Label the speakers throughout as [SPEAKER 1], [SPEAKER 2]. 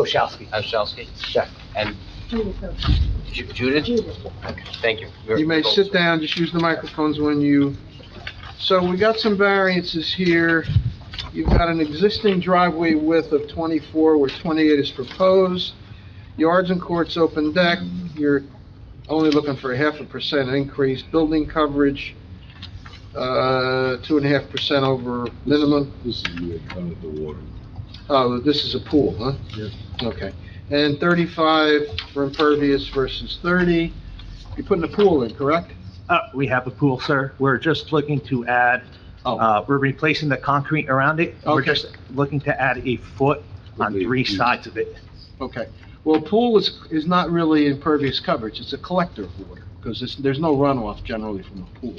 [SPEAKER 1] Oshowski.
[SPEAKER 2] Oshowski?
[SPEAKER 1] Yeah.
[SPEAKER 2] And Ju- Judith? Thank you. You're-
[SPEAKER 3] You may sit down, just use the microphones when you, so we got some variances here. You've got an existing driveway width of 24 where 28 is proposed, yards and courts open deck, you're only looking for a half a percent increase, building coverage, uh, two and a half percent over minimum.
[SPEAKER 4] This is where it comes to water.
[SPEAKER 3] Oh, this is a pool, huh?
[SPEAKER 4] Yeah.
[SPEAKER 3] Okay. And 35 for impervious versus 30. You're putting a pool in, correct?
[SPEAKER 5] Uh, we have a pool, sir. We're just looking to add,
[SPEAKER 3] Oh,
[SPEAKER 5] uh, we're replacing the concrete around it. We're
[SPEAKER 3] Okay.
[SPEAKER 5] just looking to add a foot on three sides of it.
[SPEAKER 3] okay. Well, pool is, is not really impervious coverage, it's a collector of water, because there's no runoff generally from a pool.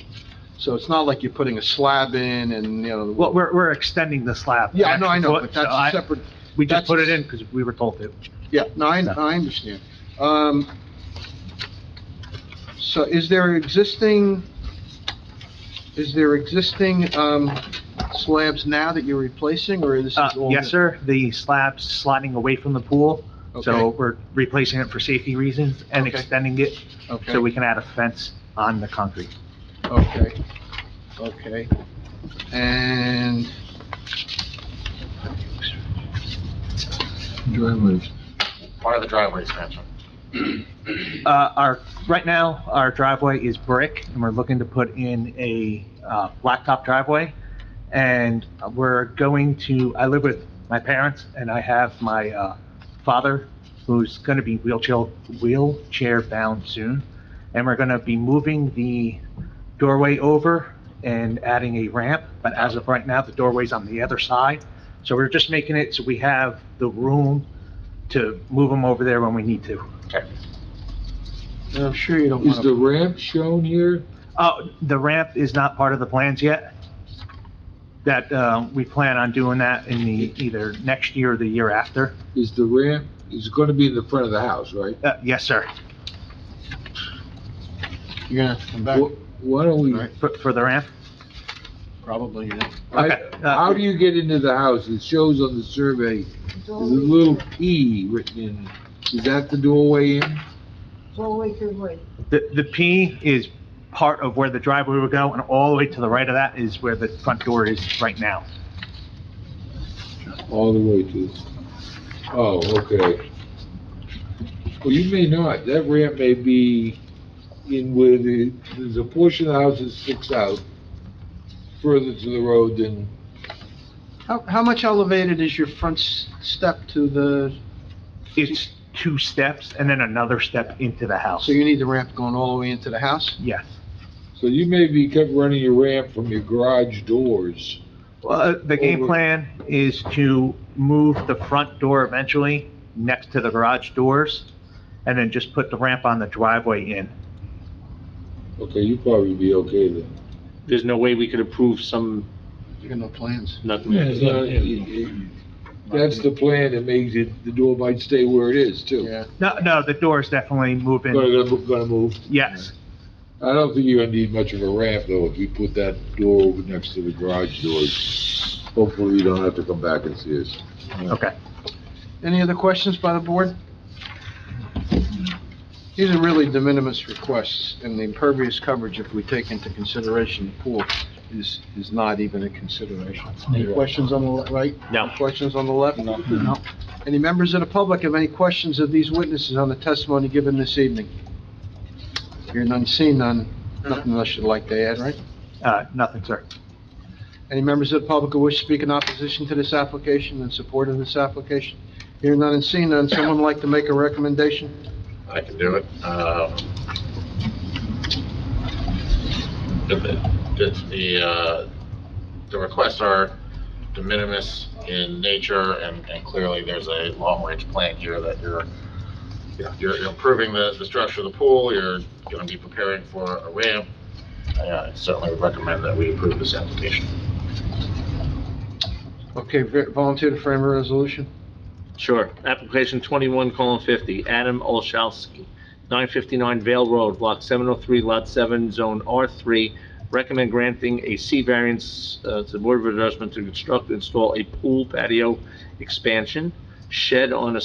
[SPEAKER 3] So it's not like you're putting a slab in and, you know.
[SPEAKER 5] Well, we're, we're extending the slab.
[SPEAKER 3] Yeah, no, I know,
[SPEAKER 5] Foot,
[SPEAKER 3] but
[SPEAKER 5] so I-
[SPEAKER 3] that's separate,
[SPEAKER 5] We just
[SPEAKER 3] that's-
[SPEAKER 5] put it in because we were told to.
[SPEAKER 3] yeah, no, I, I understand. Um, so is there existing, is there existing, um, slabs now that you're replacing, or this is
[SPEAKER 5] Uh,
[SPEAKER 3] all?
[SPEAKER 5] yes,
[SPEAKER 3] new?
[SPEAKER 5] sir. The slab's sliding away from the pool, so
[SPEAKER 3] Okay,
[SPEAKER 5] we're replacing it for safety reasons and
[SPEAKER 3] Okay.
[SPEAKER 5] extending it
[SPEAKER 3] okay.
[SPEAKER 5] so we can add a fence on the concrete.
[SPEAKER 3] Okay, okay. And
[SPEAKER 4] Driveways.
[SPEAKER 2] Part of the driveway expansion.
[SPEAKER 5] Uh, our, right now, our driveway is brick, and we're looking to put in a, uh, blacktop driveway. And we're going to, I live with my parents, and I have my, uh, father, who's gonna be wheelchair, wheelchair-bound soon. And we're gonna be moving the doorway over and adding a ramp, but as of right now, the doorway's on the other side. So we're just making it so we have the room to move them over there when we need to.
[SPEAKER 3] I'm sure you don't
[SPEAKER 4] Is
[SPEAKER 3] want
[SPEAKER 4] the
[SPEAKER 3] to,
[SPEAKER 4] ramp shown here?
[SPEAKER 5] Oh, the ramp is not part of the plans yet? That, uh, we plan on doing that in the, either next year or the year after?
[SPEAKER 4] Is the ramp, is going to be in the front of the house, right?
[SPEAKER 5] Uh, yes, sir,
[SPEAKER 3] you're gonna have to come back,
[SPEAKER 4] Wh- Why don't we,
[SPEAKER 3] Right.
[SPEAKER 5] for, for the ramp?
[SPEAKER 3] probably, yeah.
[SPEAKER 4] I,
[SPEAKER 5] Okay.
[SPEAKER 4] how do you get into the house? It shows on the survey,
[SPEAKER 6] It's
[SPEAKER 4] there's a
[SPEAKER 6] all the way
[SPEAKER 4] little
[SPEAKER 6] through-
[SPEAKER 4] P written in. Is that the doorway in?
[SPEAKER 6] it's all the way through wood.
[SPEAKER 5] The, the P is part of where the driveway would go, and all the way to the right of that is where the front door is right now.
[SPEAKER 4] All the way to, oh, okay. Well, you may not, that ramp may be in where the, there's a portion of the house that sticks out further to the road than
[SPEAKER 3] How, how much elevated is your front s- step to the,
[SPEAKER 5] It's two steps and then another step into the house.
[SPEAKER 3] so you need the ramp going all the way into the house?
[SPEAKER 5] Yes.
[SPEAKER 4] So you may be kept running your ramp from your garage doors.
[SPEAKER 5] Well, uh, the game
[SPEAKER 4] Over.
[SPEAKER 5] plan is to move the front door eventually next to the garage doors, and then just put the ramp on the driveway in.
[SPEAKER 4] Okay, you probably be okay then.
[SPEAKER 7] there's no way we could approve some,
[SPEAKER 3] You got no plans?
[SPEAKER 7] nothing.
[SPEAKER 4] Uh, it- it- That's the plan that makes it, the door might stay where it is too.
[SPEAKER 3] Yeah,
[SPEAKER 5] No, no, the doors definitely move
[SPEAKER 4] Gonna,
[SPEAKER 5] in.
[SPEAKER 4] gonna move- gonna move.
[SPEAKER 5] Yes,
[SPEAKER 4] I don't think you're gonna need much of a ramp though, if you put that door over next to the garage doors. Hopefully you don't have to come back and see us.
[SPEAKER 5] okay.
[SPEAKER 3] any other questions by the board? These are really de minimis requests, and the impervious coverage, if we take into consideration the pool, is, is not even a consideration. Any questions on the le- right?
[SPEAKER 7] No.
[SPEAKER 3] Questions on the left? No. Any members of the public have any questions of these witnesses on the testimony given this evening? Hear none, see none, nothing else you'd like to add, right?
[SPEAKER 5] Uh, nothing, sir.
[SPEAKER 3] Any members of the public who wish to speak in opposition to this application and support of this application? Hear none and see none, someone like to make a recommendation?
[SPEAKER 8] I can do it. Um, The, the- the, uh, the requests are de minimis in nature, and, and clearly there's a long-range plan here that you're, you know, you're you're improving the, the structure of the pool, you're gonna be preparing for a ramp. Uh, I Certainly would recommend that we approve this application.
[SPEAKER 3] Okay, v- volunteer to frame a resolution?
[SPEAKER 7] Sure. Application twenty-one colon fifty, Adam Olszewski, nine fifty-nine Vale Road, block seven oh three, lot seven, zone R three. Recommend granting a C variance, uh, to the Board of Adjustment to construct, and install a pool patio expansion, shed on a